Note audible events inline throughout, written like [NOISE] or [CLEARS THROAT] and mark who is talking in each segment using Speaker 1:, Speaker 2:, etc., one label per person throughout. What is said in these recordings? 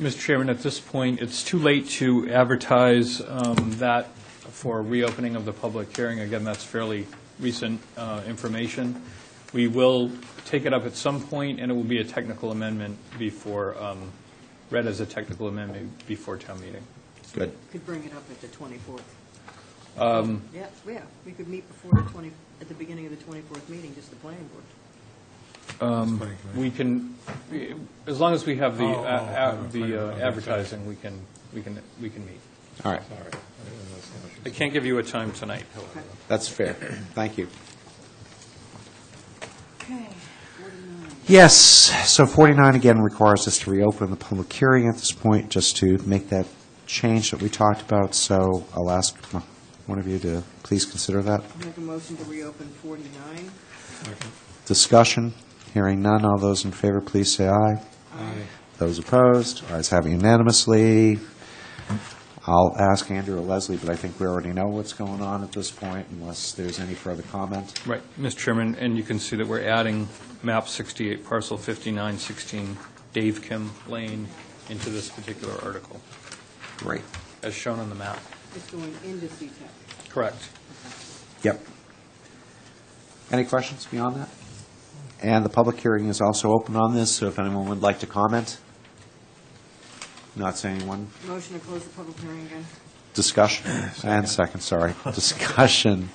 Speaker 1: Mr. Chairman, at this point, it's too late to advertise um, that for reopening of the public hearing. Again, that's fairly recent uh, information. We will take it up at some point, and it will be a technical amendment before, um, read as a technical amendment before town meeting.
Speaker 2: Good.
Speaker 3: Could bring it up at the 24th.
Speaker 2: Um,
Speaker 3: Yeah, yeah, we could meet before the 20, at the beginning of the 24th meeting, just the planning board.
Speaker 1: We can, as long as we have the,
Speaker 2: Oh,
Speaker 1: uh, uh, the uh, advertising, we can, we can, we can meet.
Speaker 2: All right.
Speaker 1: I can't give you a time tonight, however.
Speaker 2: That's fair. Thank you.
Speaker 3: Okay.
Speaker 2: Yes, so 49 again requires us to reopen the public hearing at this point, just to make that change that we talked about, so I'll ask one of you to please consider that.
Speaker 3: Make a motion to reopen 49.
Speaker 2: Discussion, hearing none, all those in favor, please say aye.
Speaker 3: Aye.
Speaker 2: Those opposed, ayes have unanimously. I'll ask Andrew or Leslie, but I think we already know what's going on at this point, unless there's any further comment.
Speaker 1: Right, Mr. Chairman, and you can see that we're adding map 68, parcel 5916, Dave Kim Lane, into this particular article,
Speaker 2: Great.
Speaker 1: as shown on the map.
Speaker 3: It's going into E CTEC.
Speaker 1: Correct.
Speaker 2: Yep. Any questions beyond that? And the public hearing is also open on this, so if anyone would like to comment? Not saying anyone.
Speaker 3: Motion to close the public hearing again.
Speaker 2: Discussion, and [CLEARS THROAT] second, [LAUGHS] sorry. Discussion.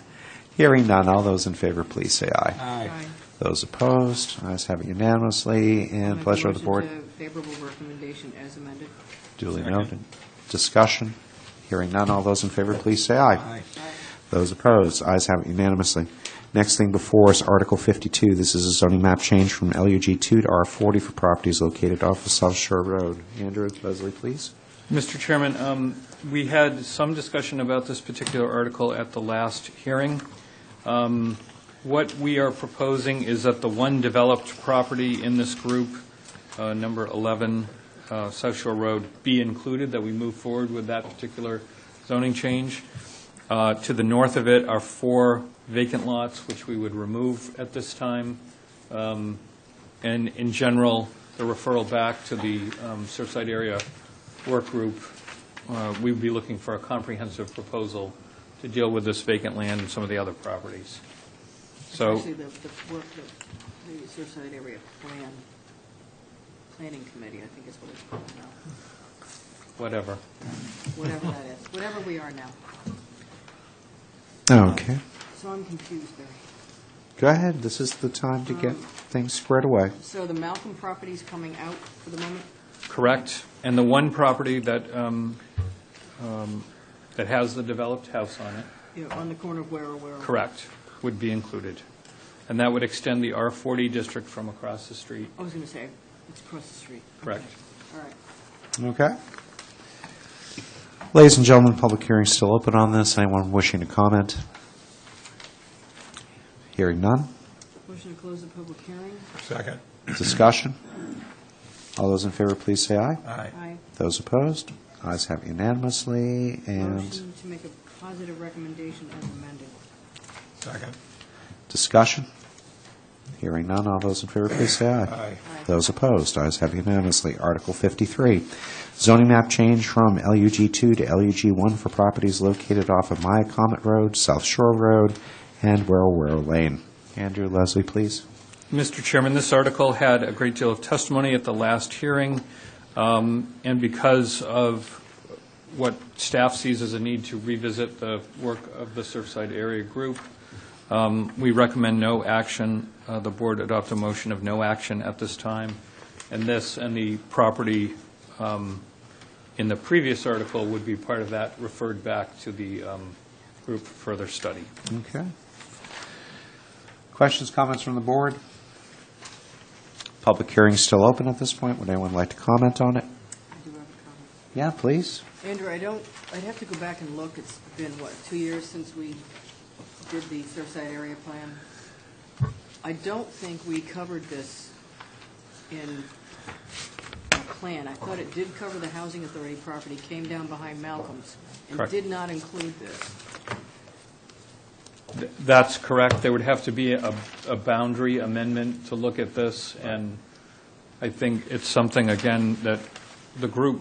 Speaker 2: Hearing none. All those in favor, please say aye.
Speaker 3: Aye.
Speaker 2: Those opposed, ayes have it unanimously, and
Speaker 3: Make a
Speaker 2: pleasure of the board.
Speaker 3: Motion to favorable recommendation as amended.
Speaker 2: Duly
Speaker 1: Second.
Speaker 2: noted. Discussion. Hearing none. All those in favor, please say aye.
Speaker 3: Aye.
Speaker 2: Those opposed, ayes have it unanimously. Next thing before us, Article 52. This is a zoning map change from LUG 2 to R40 for properties located off of South Shore Road. Andrew, Leslie, please.
Speaker 1: Mr. Chairman, um, we had some discussion about this particular article at the last hearing. Um, What we are proposing is that the one developed property in this group, uh, number 11 uh, South Shore Road, be included, that we move forward with that particular zoning change. Uh, To the north of it are four vacant lots, which we would remove at this time. Um, And in general, the referral back to the um, Surfside Area Work Group, uh, we'd be looking for a comprehensive proposal to deal with this vacant land and some of the other properties.
Speaker 2: Oh.
Speaker 1: So,
Speaker 3: Actually, the, the work, the, the Surfside Area Plan, Planning Committee, I think is what it's called now,
Speaker 1: whatever.
Speaker 3: whatever that
Speaker 2: [LAUGHS]
Speaker 3: is, whatever we are now.
Speaker 2: Okay.
Speaker 3: So I'm confused there.
Speaker 2: Go ahead. This is the time to get things squared away.
Speaker 3: So the Malcolm property's coming out for the moment?
Speaker 1: Correct. And the one property that, um, um, that has the developed house on it,
Speaker 3: Yeah, on the corner of Ware, Ware.
Speaker 1: correct, would be included. And that would extend the R40 district from across the street,
Speaker 3: I was going to say, it's across the street.
Speaker 1: correct.
Speaker 3: All right.
Speaker 2: Okay. Ladies and gentlemen, public hearing's still open on this. Anyone wishing to comment? Hearing none.
Speaker 3: Motion to close the public hearing.
Speaker 4: Second.
Speaker 2: Discussion. All those in favor, please say aye.
Speaker 4: Aye.
Speaker 3: Aye.
Speaker 2: Those opposed, ayes have unanimously, and
Speaker 3: Motion to make a positive recommendation as amended.
Speaker 4: Second.
Speaker 2: discussion. Hearing none, all those in favor, please say aye.
Speaker 4: Aye.
Speaker 3: Aye.
Speaker 2: Those opposed, ayes have unanimously. Article 53, zoning map change from LUG 2 to LUG 1 for properties located off of Maya Comet Road, South Shore Road, and Warrow Lane. Andrew, Leslie, please.
Speaker 1: Mr. Chairman, this article had a great deal of testimony at the last hearing, um, and because of what staff sees as a need to revisit the work of the Surfside Area Group, um, we recommend no action. Uh, The board adopt a motion of no action at this time, and this and the property um, in the previous article would be part of that, referred back to the um, group for further study.
Speaker 2: Okay. Questions, comments from the board? Public hearing's still open at this point. Would anyone like to comment on it?
Speaker 3: I do have a
Speaker 2: Yeah, please.
Speaker 3: comment. Andrew, I don't, I'd have to go back and look. It's been, what, two years since we did the Surfside Area Plan? I don't think we covered this in our plan. I thought it did cover the Housing Authority property, came down behind Malcolm's, and
Speaker 1: Correct.
Speaker 3: did not include this.
Speaker 1: Th- That's correct. There would have to be a, a boundary amendment to look at this, and I think it's something, again, that the group